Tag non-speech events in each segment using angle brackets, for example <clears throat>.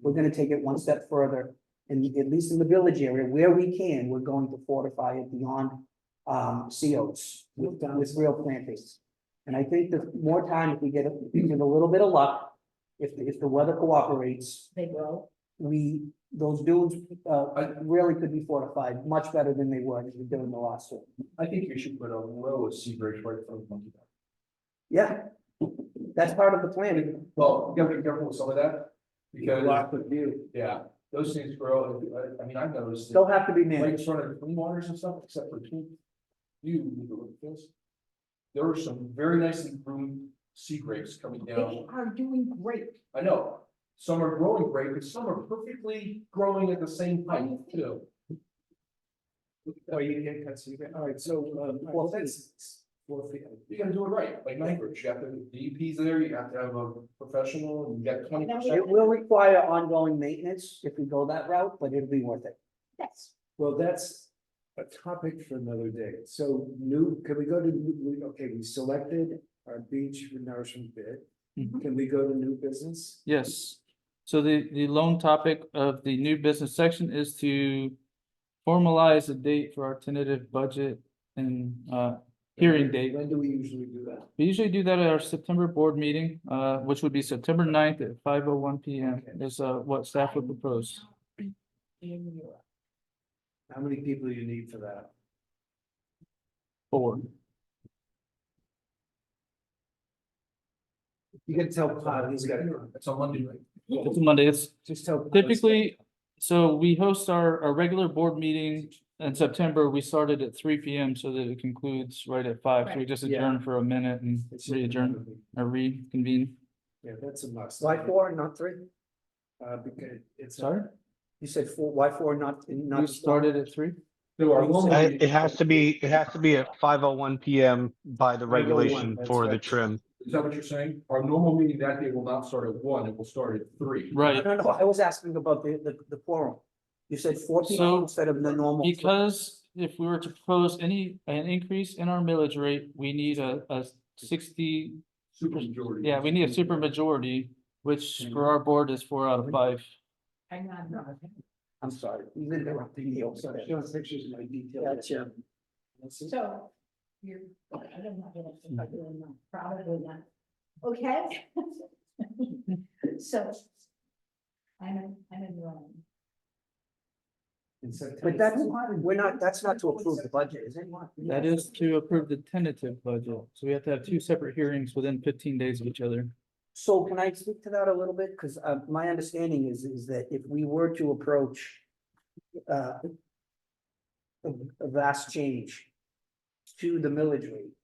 we're gonna take it one step further. And at least in the village area, where we can, we're going to fortify it beyond um COs with with real plantings. And I think the more time, if we get, a- <clears throat> with a little bit of luck, if if the weather cooperates, They will. we, those dunes uh really could be fortified much better than they were during the last one. I think you should put a row of sea bridge right from Monkey Dock. Yeah, that's part of the plan. Well, you gotta be careful with some of that, because, the view. yeah, those things grow, uh, I, I mean, I've noticed. that- They'll have to be Like in managed. front of clean waters and stuff, except for two. You, this. There were some very nicely groomed sea grapes coming They down. are doing great. I know, some are growing great, but some are perfectly growing at the same height too. Oh, you didn't cut, so you, all right, so, um, well, that's. Well, You gotta do it right, like Nybridge, you have to, have DEP's there, you have to have a professional, and you got twenty percent. It will require ongoing maintenance if we go that route, but it'll be worth it. Yes. well, that's a topic for another day. So new, can we go to, new- we- okay, we selected our beach nourishment bid. Mhm. Can we go to new business? Yes, so the, the lone topic of the new business section is to formalize a date for our tentative budget and, uh, hearing date. When do we usually do that? We usually do that at our September board meeting, uh, which would be September 9th at five oh one P M is, uh, what staff would propose. In Europe. How many people you need for that? Four. You can tell Todd, he's got, It's on Monday, right? It's a Monday, it's just tell. Todd. typically, so we host our, our regular board meeting in September. We started at three P M so that it concludes right at five. So we Right. just Yeah. adjourn for a minute and It's just- re-adjourn or reconvene. Yeah, that's a must. Why four and not three? Uh, because it's. Sorry? You said four, why four, and not, and not? You started at three? No, our normal I- meeting- It has to be, it has to be at five oh one PM by the 5:01, regulation that's for the right. trim. Is that what you're saying? Our normal meeting that day will not start at one, it will start at three. No, Right, no, no, I was asking about the the the quorum. You said four people So, instead of the normal. because if we were to propose any, an increase in our millage rate, we need a, a sixty, Super majority. yeah, we need a super majority, which for our board is four out of five. I'm not, no, I'm sorry, you interrupted me also. Sorry, showing pictures of my detail. Gotcha. so you're, I don't know, I don't know, probably not. Okay? <laughs> So. I'm, I'm enrolling. But that's, we're not, that's not to approve the budget, is it? That is to approve the tentative budget, so we have to have two separate hearings within fifteen days of each other. So can I speak to that a little bit? Because uh my understanding is is that if we were to approach. Uh. A a vast change. To the millage rate.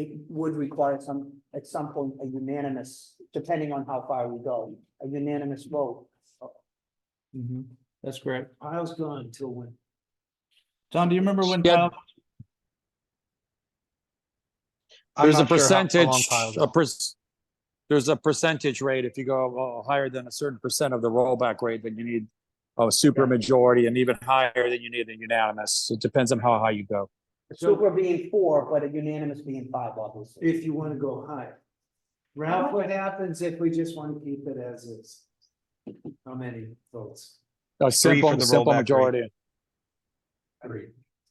It would require some, at some point, a unanimous, depending on how far we go, a unanimous vote. That's correct. Pile's gone till when? John, do you remember when? Yeah. Kyle- I'm There's a not sure how- how long percentage, Kyle's a on. per, there's a percentage rate. If you go uh, higher than a certain percent of the rollback rate, then you need a super majority and even higher than you need a unanimous. It depends on how high you go. Super being four, but a unanimous being five, obviously. If you wanna go high. Ralph, what happens if we just wanna keep it as is? How many votes? A for simple, the simple rollback rate. majority.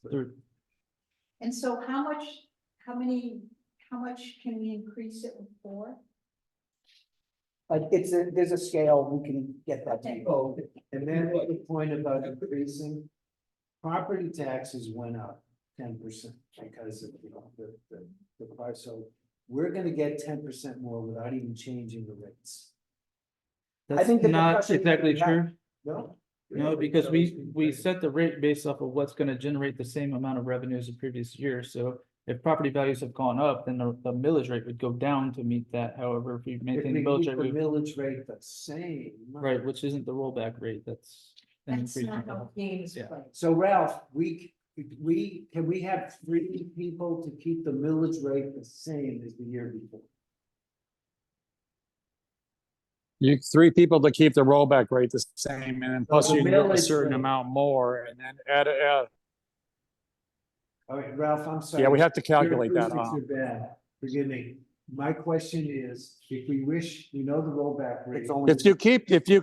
Three. And so how much, how many, how much can we increase it for? Like it's a, there's a scale, we can get that. to you. Oh, and then the point about increasing. Property taxes went up ten percent because of you know, the, the, the price, so. We're gonna get ten percent more without even changing the rates. I think the That's not discussion- exactly yeah. true. No? No, because we, we set the rate based off of what's gonna generate the same amount of revenue as the previous year, so. If property values have gone up, then the, the millage rate would go down to meet that, however, if we If maintain we the millage keep the rate, we- millage rate the same. right, which isn't the rollback rate, that's. an That's increase not in- how games Yeah. play. So Ralph, we, we, can we have three people to keep the millage rate the same as the year before? You, three people to keep the rollback rate the same and then plus the you can go a millage certain rate. amount more and then add, uh, All right, Ralph, I'm sorry. yeah, we have to Your calculate that. uh, acoustics huh? are bad. Forgive me. My question is, if we wish, we know the rollback rate. It's only. If you keep, if you,